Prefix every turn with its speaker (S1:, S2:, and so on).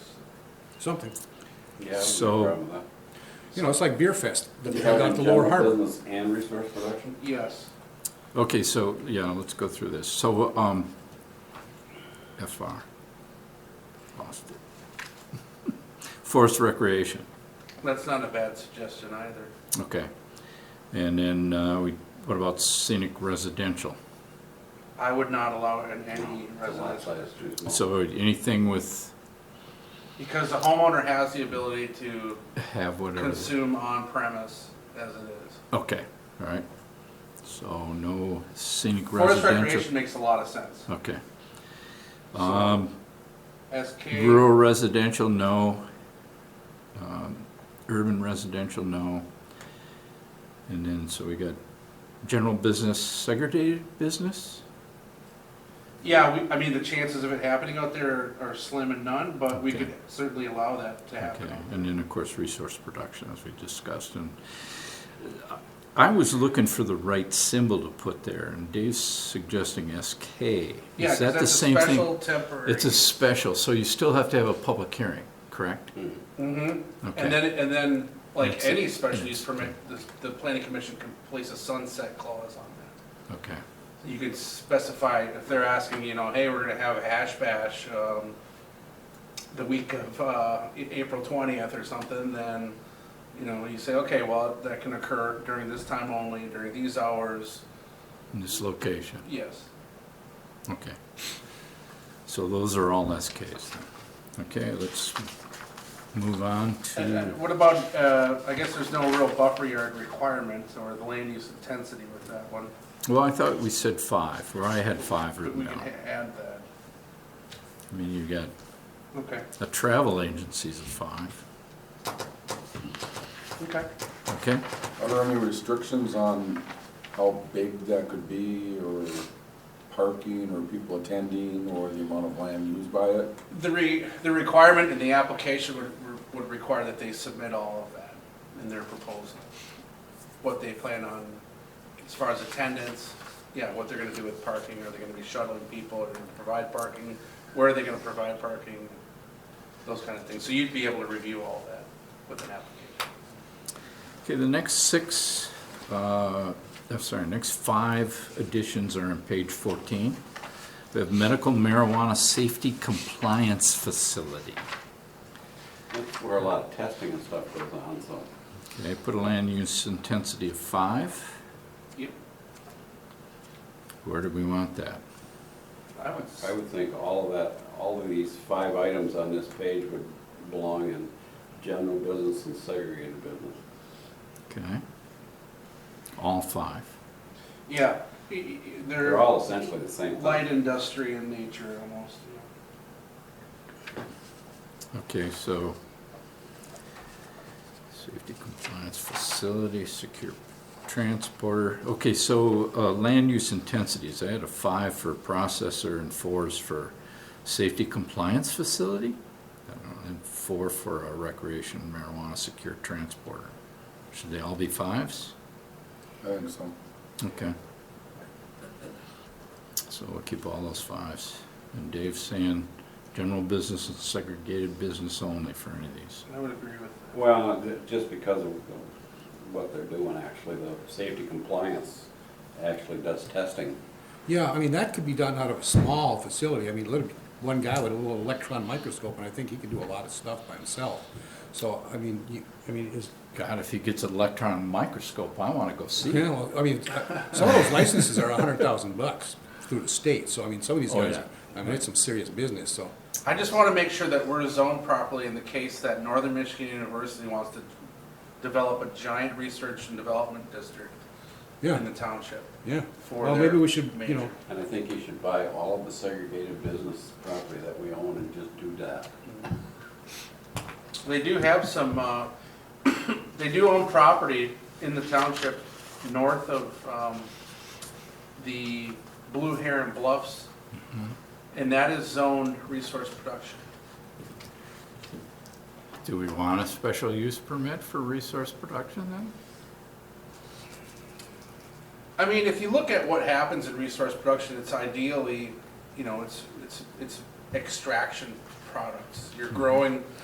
S1: something.
S2: Yeah.
S3: So-
S1: You know, it's like Beer Fest that we had out at the Lower Harbor.
S2: Business and resource production?
S4: Yes.
S3: Okay, so, yeah, let's go through this. So, um, FR. Lost it. Forest recreation,
S4: That's not a bad suggestion either.
S3: okay. And then, uh, we, what about scenic residential?
S4: I would not allow it in any
S2: The lot
S4: residential.
S2: size is too small.
S3: So anything with,
S4: Because the homeowner has the ability to
S3: have whatever,
S4: consume on premise as it is.
S3: okay, all right. So no scenic
S4: Forest
S3: residential.
S4: recreation makes a lot of sense.
S3: Okay. Um,
S4: SK,
S3: Rural residential, no. Um, Urban residential, no. And then, so we got general business, segregated business?
S4: yeah, we, I mean, the chances of it happening out there are slim and none, but we
S3: Okay.
S4: could certainly allow that to happen.
S3: Okay, and then, of course, resource production, as we discussed, and uh, I was looking for the right symbol to put there, and Dave's suggesting SK. Is
S4: Yeah, 'cause
S3: that the
S4: that's a
S3: same thing?
S4: special temporary.
S3: It's a special, so you still have to have a public hearing, correct?
S2: Mhm.
S4: Mhm.
S3: Okay.
S4: And then, and then, like
S3: That's it.
S4: any special use
S3: Yes.
S4: permit, the, the planning commission can place a sunset clause on that.
S3: Okay,
S4: You could specify, if they're asking, you know, hey, we're gonna have a hash bash, um, the week of, uh, A- April twentieth or something, then, you know, you say, okay, well, that can occur during this time only, during these hours,
S3: in this location.
S4: yes.
S3: Okay. So those are all SKs then. Okay, let's move on
S4: And
S3: to,
S4: and what about, uh, I guess there's no real buffer yard requirements or the land use intensity with that one,
S3: well, I thought we said five, or I had five
S4: but we
S3: written
S4: can
S3: down.
S4: ha- add that,
S3: I mean, you've got,
S4: okay,
S3: a travel agency's a five,
S4: okay.
S3: okay?
S5: Are there any restrictions on how big that could be, or parking, or people attending, or the amount of land used by it?
S4: The re, the requirement in the application would, would require that they submit all of that in their proposal. What they plan on, as far as attendance, yeah, what they're gonna do with parking, are they gonna be shuttling people, are they gonna provide parking? Where are they gonna provide parking? Those kind of things, so you'd be able to review all that with an application.
S3: Okay, the next six, uh, I'm sorry, next five additions are on page fourteen. We have medical marijuana safety compliance facility.
S2: That's where a lot of testing and stuff goes on, so.
S3: Okay, put a land use intensity of five.
S4: Yep,
S3: Where do we want that?
S4: I would,
S2: I would think all of that, all of these five items on this page would belong in general business and segregated business.
S3: Okay. All five.
S4: yeah, y- y- y-
S2: They're
S4: they're
S2: all essentially the same thing.
S4: light industry in nature almost, you know.
S3: Okay, so safety compliance facility, secure transporter. Okay, so uh, land use intensities, I had a five for processor and fours for safety compliance facility? I don't know, And four for a recreation marijuana secure transporter. Should they all be fives?
S5: I think so.
S3: Okay. So we'll keep all those fives. And Dave's saying, general business and segregated business only for any of these.
S4: I would agree with that.
S2: Well, th- just because of what they're doing, actually, the safety compliance actually does testing.
S1: Yeah, I mean, that could be done out of a small facility. I mean, lit- one guy with a little electron microscope, and I think he could do a lot of stuff by himself. So, I mean, you, I mean, is,
S3: God, if he gets an electron microscope, I wanna go see
S1: you
S3: it.
S1: know, I mean, uh, some of those licenses are a hundred thousand bucks through the state, so I mean, some of these
S3: Oh,
S1: guys,
S3: yeah.
S1: I mean, it's some serious business, so.
S4: I just want to make sure that we're zoned properly in the case that Northern Michigan University wants to develop a giant research and development district in
S1: Yeah,
S4: the township.
S1: yeah.
S4: For
S1: Well, maybe
S4: their
S1: we should, you
S4: major-
S1: know,
S2: And I think you should buy all of the segregated business property that we own and just do that.
S4: They do have some, uh, they do own property in the township north of um, the Blue Heron Bluffs, and that is zoned resource production.
S3: Do we want a special use permit for resource production then?
S4: I mean, if you look at what happens in resource production, it's ideally, you know, it's, it's, it's extraction products. You're growing